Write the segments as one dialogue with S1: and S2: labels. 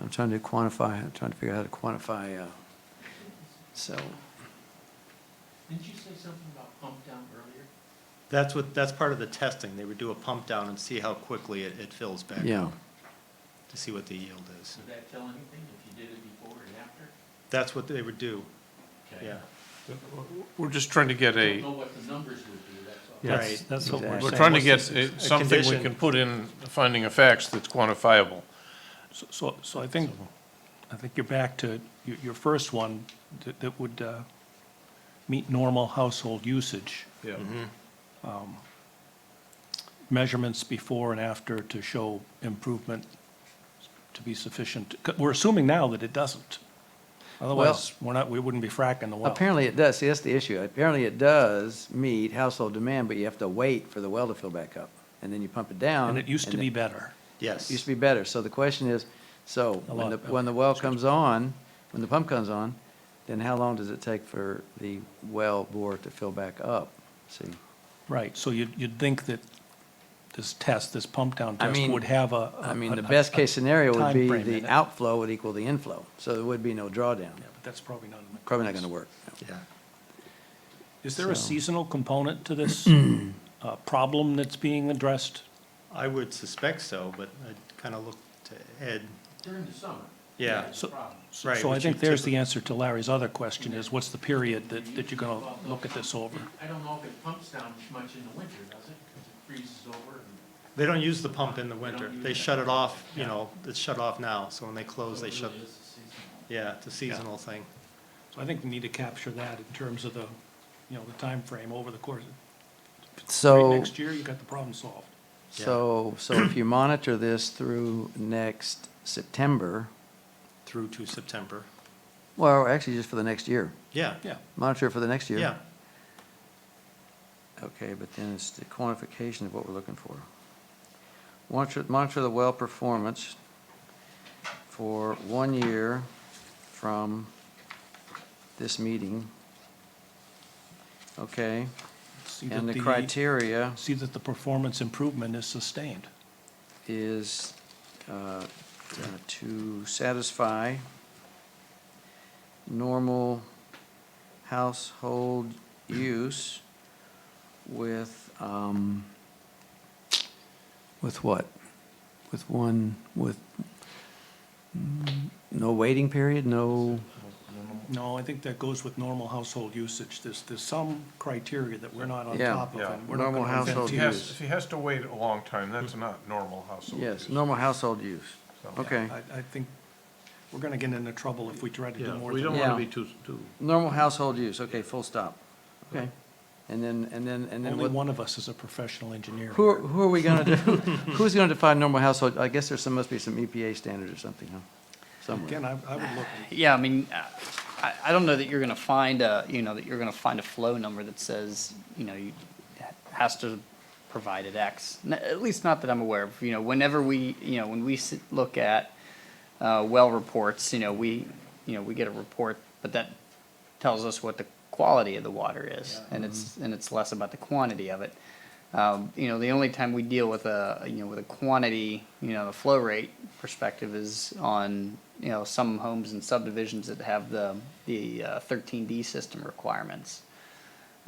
S1: I'm trying to quantify, I'm trying to figure out how to quantify, uh, so,
S2: Didn't you say something about pump down earlier?
S3: That's what, that's part of the testing. They would do a pump down and see how quickly it, it fills back
S1: yeah.
S3: up to see what the yield is.
S2: Did that tell anything, if you did it before and after?
S3: That's what they would do,
S2: Okay.
S3: yeah.
S4: We're just trying to get
S2: Don't
S4: a,
S2: know what the numbers would be, that's all.
S5: That's,
S3: Right.
S5: that's what we're saying.
S1: Exactly.
S4: we're trying to
S3: What's
S4: get
S3: this-
S4: a-
S3: a
S4: something we
S3: condition.
S4: can put in the finding of facts that's quantifiable.
S5: So- So, so I think, I think you're back to your, your first one that, that would, uh, meet normal household usage. Um,
S4: Yeah.
S1: Mm-hmm.
S5: Measurements before and after to show improvement to be sufficient. 'Cause We're assuming now that it doesn't. Otherwise, we're not, we wouldn't be fracking the well.
S1: Apparently it does, see, that's the issue. Apparently it does meet household demand, but you have to wait for the well to fill back up. And then you pump it down.
S5: And it used to
S1: and
S5: be better.
S3: Yes.
S1: Used to be better. So the question is, so
S5: A
S1: when the,
S5: lot better.
S1: when the well comes on, when the pump comes on, then how long does it take for the well bore to fill back up? See,
S5: Right, so you'd, you'd think that this test, this pump down
S1: I
S5: test
S1: mean-
S5: would have a. a-
S1: I mean, the
S5: a-
S1: best
S5: a-
S1: case scenario would be
S5: timeframe in
S1: the
S5: it.
S1: outflow would equal the inflow. So there would be no drawdown.
S5: Yeah, but that's probably not. in the-
S1: Probably not going to work.
S3: Yeah.
S5: Is there a
S1: So-
S5: seasonal component to this uh, problem that's being addressed?
S3: I would suspect so, but I'd kind of look to Ed.
S2: During the summer.
S3: Yeah.
S2: that's
S5: So-
S2: the problem.
S5: So-
S3: Right,
S5: So I
S3: which
S5: think
S3: you
S5: there's
S3: typically-
S5: the answer to Larry's other question, is what's the period that, that you're going to look at this over?
S2: I don't know if it pumps down much in the winter, does it? Because it freezes over and.
S3: They don't use the pump in the winter.
S2: use
S3: They
S2: it.
S3: shut it off, you know, it's shut off now, so when they close, they
S2: It
S3: shut,
S2: really is a seasonal.
S3: yeah, it's a seasonal thing.
S5: So I think we need to capture that in terms of the, you know, the time frame over the course.
S1: So.
S5: Next year, you got the problem solved.
S3: Yeah.
S1: So, so if you monitor this through next September,
S3: Through to September.
S1: well, actually just for the next year,
S3: Yeah,
S5: Yeah,
S1: monitor it for the next year.
S3: yeah,
S1: Okay, but then it's the quantification of what we're looking for. Monitor, monitor the well performance for one year from this meeting. Okay,
S5: see that
S1: and the criteria
S5: See that the performance improvement is sustained.
S1: is uh, uh, to satisfy normal household use with, um, with what? With one, with, mm, no waiting period, no,
S5: No, I think that goes with normal household usage. There's, there's some criteria that we're not on
S1: Yeah,
S5: top of.
S4: yeah.
S5: and we're not
S1: Normal
S5: gonna invent
S1: household
S4: If he
S5: these.
S4: has, if he has to wait a long time, that's not normal household
S1: yes,
S4: use.
S1: normal household use.
S4: So-
S1: Okay.
S5: I, I think we're gonna get into trouble if we try to do
S6: Yeah,
S5: more
S6: we don't
S5: than that.
S1: Yeah.
S6: want to be too, too,
S1: Normal household use, okay, full stop. Okay. And then, and then, and then
S5: Only
S1: what?
S5: one of us is a professional engineer.
S1: Who, are-
S5: here.
S1: who are we gonna do, who's gonna define normal household? I guess there's some, must be some EPA standard or something, huh? Somewhere.
S5: Again, I, I would look,
S7: Yeah, I mean, uh, I, I don't know that you're gonna find a, you know, that you're gonna find a flow number that says, you know, you has to provide at X. N- At least not that I'm aware of, you know, whenever we, you know, when we sit, look at, uh, well reports, you know, we, you know, we get a report, but that tells us what the quality of the water is, and it's, and it's less about the quantity of it. Um, you know, the only time we deal with a, you know, with a quantity, you know, the flow rate perspective is on, you know, some homes and subdivisions that have the, the uh, 13D system requirements.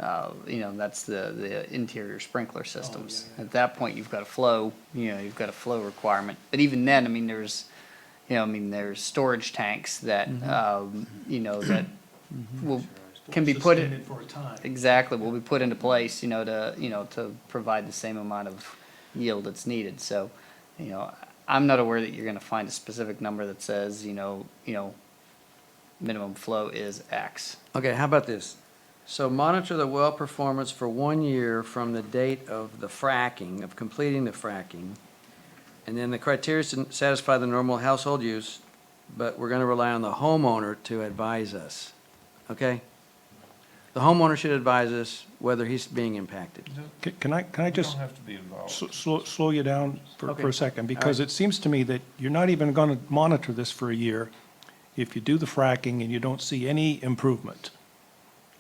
S7: Uh, you know, that's the, the interior sprinkler systems. At that point, you've got a flow, you know, you've got a flow requirement. But even then, I mean, there's, you know, I mean, there's storage tanks that, um, you know, that will, can be put in.
S5: suspended for a time.
S7: Exactly, will be put into place, you know, to, you know, to provide the same amount of yield that's needed, so, you know, I'm not aware that you're gonna find a specific number that says, you know, you know, minimum flow is X.
S1: Okay, how about this? So monitor the well performance for one year from the date of the fracking, of completing the fracking. And then the criteria is to satisfy the normal household use, but we're gonna rely on the homeowner to advise us, okay? The homeowner should advise us whether he's being impacted.
S5: Ca- Can I, can I
S4: You don't
S5: just
S4: have to be involved.
S5: sl- slow, slow you down for,
S1: Okay.
S5: for a second? Because
S1: right.
S5: it seems to me that you're not even gonna monitor this for a year if you do the fracking and you don't see any improvement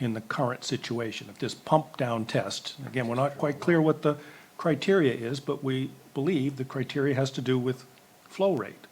S5: in the current situation, if this pump down test, again, we're not quite clear what the criteria is, but we believe the criteria has to do with flow rate.